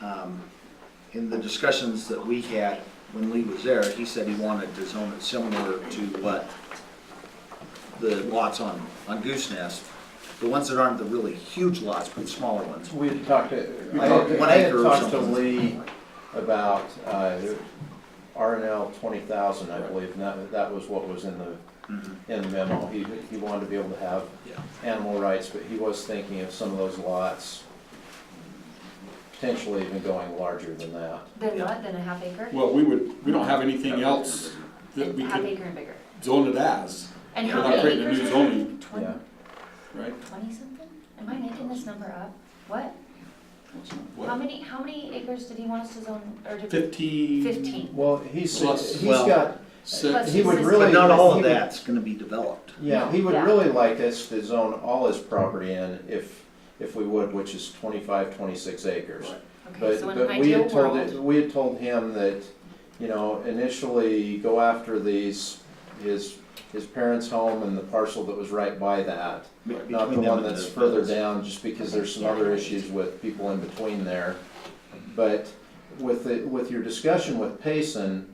um, in the discussions that we had when Lee was there, he said he wanted to zone it similar to what the lots on, on Goose Nest, the ones that aren't the really huge lots, but smaller ones. We had talked to, We I talked had, one I had acre or talked to something. Lee about, uh, RNL twenty thousand, I believe, and that, that was what was in the, Mhm, in the memo. He, he wanted to be able to have Yeah, animal rights, but he was thinking of some of those lots potentially even going larger than that. Then Yeah. what, then a half acre? Well, we would, we don't have anything else that we Half could acre and bigger. zone it as, And Yeah. how We're not many creating a acres? new are zoning. there? Twen- Yeah. right? Twenty something? Am I making this number up? What? How What? many, how many acres did he want us to zone, or did? Fifteen? Fifteen. Well, he's, Plus- he's well- got, Six? he would Plus really- but not all he of would- that's gonna be developed. Yeah, he would Yeah. really like us to zone all his property in if, if we would, which is 25, 26 acres. Right. Okay, But, so in but an we ideal had told, world, it- we had told him that, you know, initially go after these, his, his parents' home and the parcel that was right by that. be- Not the between them one and that's the- further down, just because there's some Yeah. other issues with people in between there. But with, the- with your discussion with Payson,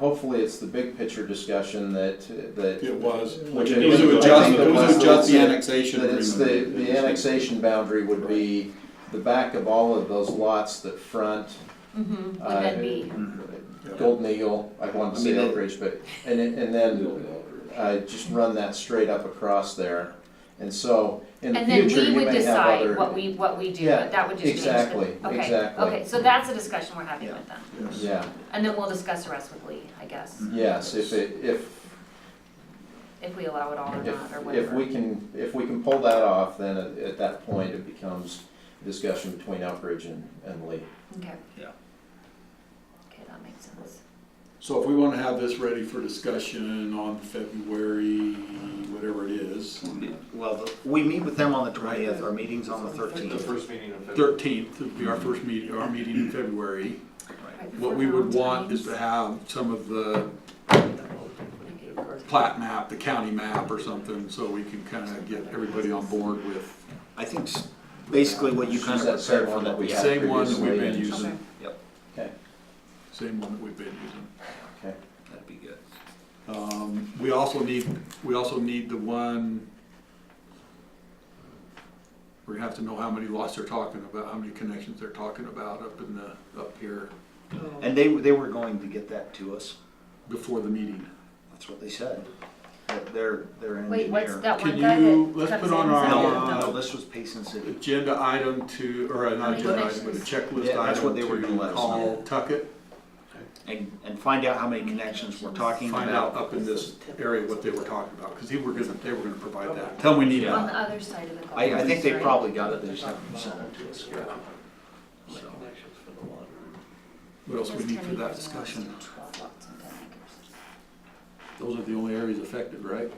hopefully it's the big picture discussion that, that. It was. Which It was to I adjust, think it was to adjust the annexation That it's agreement. the, the annexation boundary would be the back of all of those lots that front mhm, would uh, then be, Mhm. Golden Eagle, I wanted to I say mean, Oak Ridge, but, and, it- and then, uh, just run that straight up across there. And so, in the and then future, we you would may have other. decide what we, what we do, Yeah, but that would just change. the- exactly, okay, exactly. Okay, so that's a discussion we're having Yeah. with them, Yes. Yeah, and then we'll discuss the rest with Lee, I Mm. guess, yes, if it, if, if we allow it all or if, not, or if whatever. we can, if we can pull that off, then at, at that point, it becomes a discussion between Oak Ridge and, and Lee. Okay. Yeah. Okay, that makes sense. So if we wanna have this ready for discussion on February, whatever it is, Well, the- we meet with them on the twentieth, our meeting's on the The thirteenth. first meeting of February. thirteenth would be our first meet, our meeting in February. Right, What for we would want Valentine's. is to have some of the plat map, the county map or something, so we can kinda get everybody on board with I think s- basically what you kind Is of that same prepared for one that that, we yeah. had Same one that we've previously? been Okay. using, Okay, same one that we've been using. okay. That'd be good. Um, we also need, we also need the one, we're gonna have to know how many lots they're talking about, how many connections they're talking about up in the, up here And they, they were going to get that to us. before the meeting. That's what they said. That Their, their engineer. Wait, what's that Can one guy that you- let's comes put in on and our- says, No, "Yeah, Uh, no, no." this was Payson City. Agenda item to, or uh, not Any agenda item, but a connections? checklist Yeah, that's what item they were gonna let to us call Tuckett, And, and find out how many connections we're talking find out about. up in this area what they were talking about, cause they were gonna, they were gonna provide that. Tell them we need On the that. other side of the golf I, I think they course, right? probably got it, they just haven't sent it to us. yet. So, What else we Just need 10 for that acres and discussion? lots of 12 lots and 10 acres. Those are the only areas affected, right?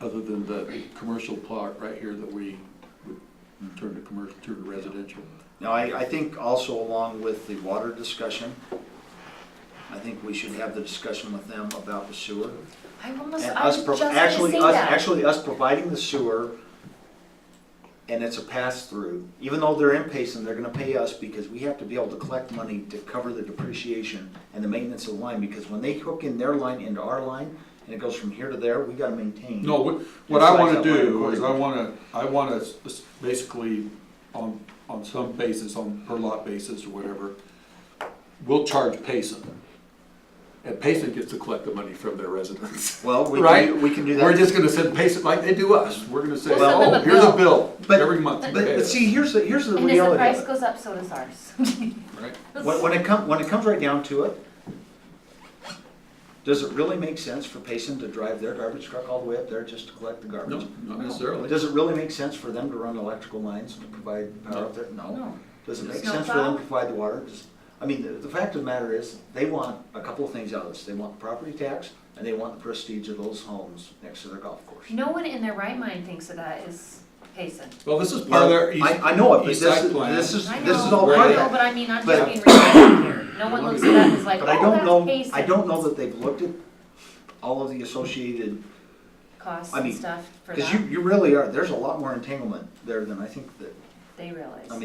Other than the commercial plot right here that we would turn to commercial, turn to residential. Now, I, I think also along with the water discussion, I think we should have the discussion with them about the sewer. I almost, And I was us, just pro- gonna actually, say us, that. actually us providing the sewer, and it's a pass-through, even though they're in Payson, they're gonna pay us because we have to be able to collect money to cover the depreciation and the maintenance of the line, because when they hook in their line into our line, and it goes from here to there, we gotta maintain. No, what, what I wanna do is I wanna, I wanna s- s- basically, on, on some basis, on per lot basis or whatever, we'll charge Payson. And Payson gets to collect the money from their residents, Well, we right? can, we can do We're that, just gonna send Payson, like they do us, we're gonna say, We'll send oh, them a here's a bill, But- every month. you but, pay but us," see, here's the, here's the And as the reality price of it. goes up, so does ours. Right? When, when it come, when it comes right down to it, does it really make sense for Payson to drive their garbage truck all the way up there just to collect the garbage? No, not necessarily. Does it really make sense for them to run electrical lines to provide power up there? No. No. Does it make Snow sense for them plow? to provide the water? Does- I mean, the, the fact of the matter is, they want a couple of things out of this. They want the property tax, and they want the prestige of those homes next to their golf course. No one in their right mind thinks of that is Payson. Well, this is part of their east, I, I know it, but east this, side is- plan. this is, I know, this is all part I of know, that. but I mean, I'm But- just being realistic here. No one looks at that and is like, But I don't know, oh, that's I don't Payson know that they've looked at all of the associated costs I and mean, stuff for Because you, that. you really are, there's a lot more entanglement there than I think that They realize. I mean,